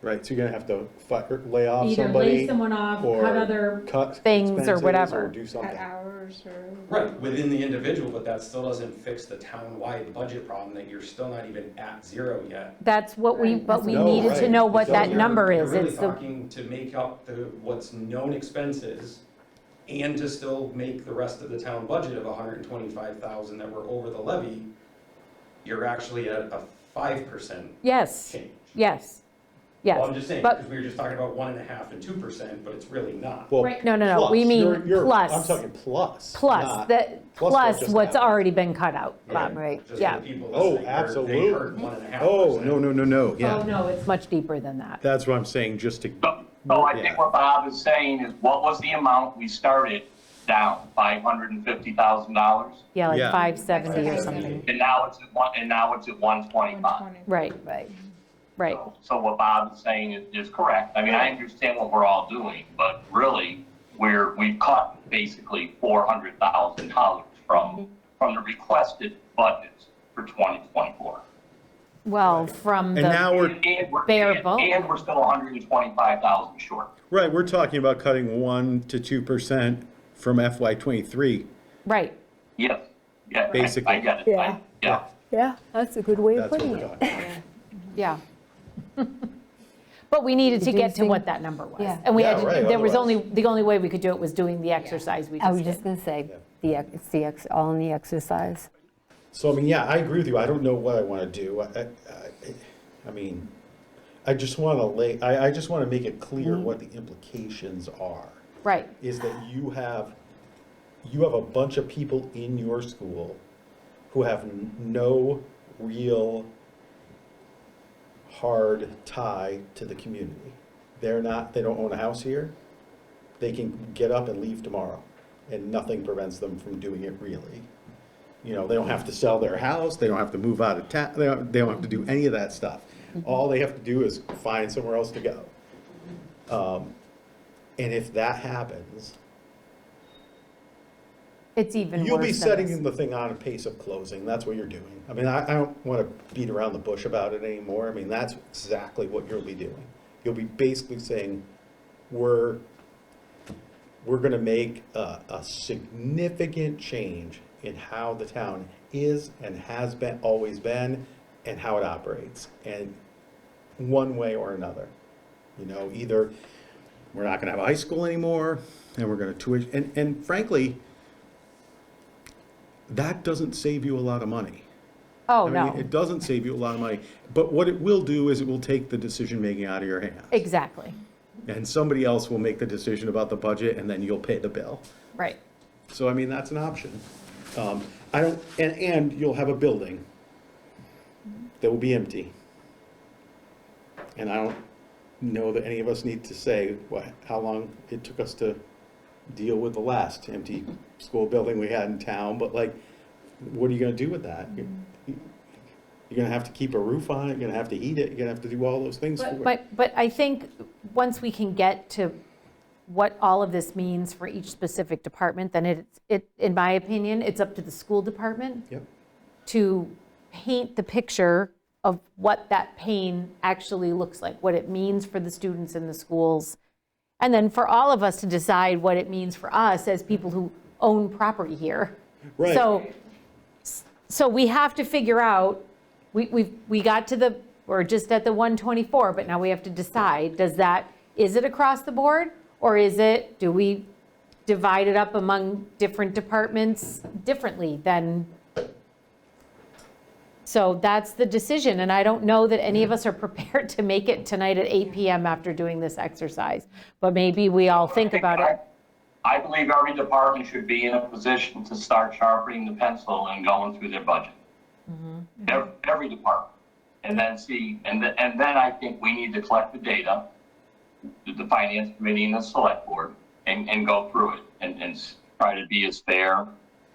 Right, so you're gonna have to fire, lay off Either lay somebody, someone off, or cut other, cut Things or expenses, whatever. or do At something. hours or? Right, within the individual, but that still doesn't fix the town-wide budget problem that you're still not even at zero yet. That's what we, Right. but we No, needed to right. know what So that you're- number is. You're It's really the, talking to make up the, what's known expenses and to still make the rest of the town budget of hundred and twenty-five thousand that were over the levy, you're actually at a five percent yes, change. yes, Well, I'm yes. just saying, but- because we were just talking about one and a half and two percent, but it's really not. Well, right, No, no, no, plus, we mean you're- you're- I'm plus, talking plus. plus, not- that, plus what plus just what's happened. already been cut out, Yeah. Bob. Right. Just yeah. for people Oh, listening, they're- absolutely. they heard one and a half Oh, percent. no, no, no, no, oh, yeah, no, it's Much deeper than that. that's what I'm saying, just to, So, so I Yeah. think what Bob is saying is, what was the amount we started down, five hundred and fifty thousand dollars? Yeah, like Yeah. 570 or Right. something. And now it's at one, and now it's at one twenty-five. 120. Right, Right. right. So what Bob is saying is, is correct. I mean, I understand what we're all doing, but really, we're, we've cut basically four hundred thousand dollars from, from the requested budgets for twenty twenty-four. Well, from and now the, we're, Bare And we're still hundred and twenty-five thousand short. right, we're talking about cutting one to two percent from FY twenty-three. right, Yes, yeah, I- I Basically. get it. Yeah. I- Yeah. Yeah, that's a good way That's of what putting we're it. talking about. yeah. But we needed to get to Reducing- what that number was. Yeah. And we had, Yeah, to- right, there was only, otherwise- the only way we could do it was doing the exercise we I was just did. just going to say, the, ex- it's the, ex- all in the exercise. So, I mean, yeah, I agree with you. I don't know what I want to do. I, I, I- I mean, I just want to lay, I, I just want to make it Mm-hmm. clear what the implications are. Right, Is that you have, you have a bunch of people in your school who have n- no real hard tie to the community. They're not, they don't own a house here. They can get up and leave tomorrow, and nothing prevents them from doing it really. You know, they don't have to sell their house, they don't have to move out of town, they don't, they don't have to do any of that stuff. All they have to do is find somewhere else to go. Um, And if that happens, it's even worse you'll be than this. setting the thing on a pace of closing, that's what you're doing. I mean, I, I don't want to beat around the bush about it anymore, I mean, that's exactly what you'll be doing. You'll be basically saying, we're, we're gonna make a, a significant change in how the town is and has been, always been, and how it operates, and one way or another. You know, either we're not gonna have a high school anymore, and we're gonna tuition, and, and frankly, that doesn't save you a lot of money. Oh, I no. mean, It doesn't save you a lot of money, but what it will do is it will take the decision-making out of your hands. Exactly, And somebody else will make the decision about the budget, and then you'll pay the bill. right. So I mean, that's an option. Um, I don't, and, and you'll have a building that will be empty. And I don't know that any of us need to say what, how long it took us to deal with the last empty school building we had in town, but like, what are you gonna do with that? Mm-hmm. You're you're gonna have to keep a roof on it, you're gonna have to heat it, you're gonna have to do all those things for it. But, but I think, once we can get to what all of this means for each specific department, then it, it, in my opinion, it's up to the school department Yep, to paint the picture of what that pain actually looks like, what it means for the students in the schools, and then for all of us to decide what it means for us as people who own property here. Right. So, so we have to figure out, we, we, we got to the, we're just at the 124, but now we have to decide, does that, is it across the board? Or is it, do we divide it up among different departments differently than? So that's the decision, and I don't know that any of us are prepared to make it tonight at 8 PM after doing this exercise. But maybe we all think about it. I believe every department should be in a position to start sharpening the pencil and going through their budget. Mm-hmm. Every, every department. And then see, and then, and then I think we need to collect the data, the- the finance committee and the select board, and, and go through it and, and s- try to be as fair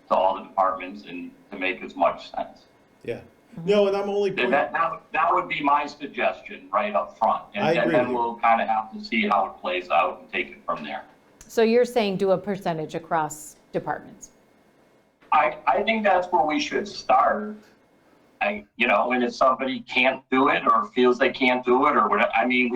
to all the departments and to make as much sense. yeah. No, and I'm only. That, pointing- that, that- that would be my suggestion right up front. And- I agree And then with you. we'll kind of have to see how it plays out and take it from there. So you're saying do a percentage across departments? I, I think that's where we should start. I, you know, and if somebody can't do it or feels they can't do it or whatever, I mean, we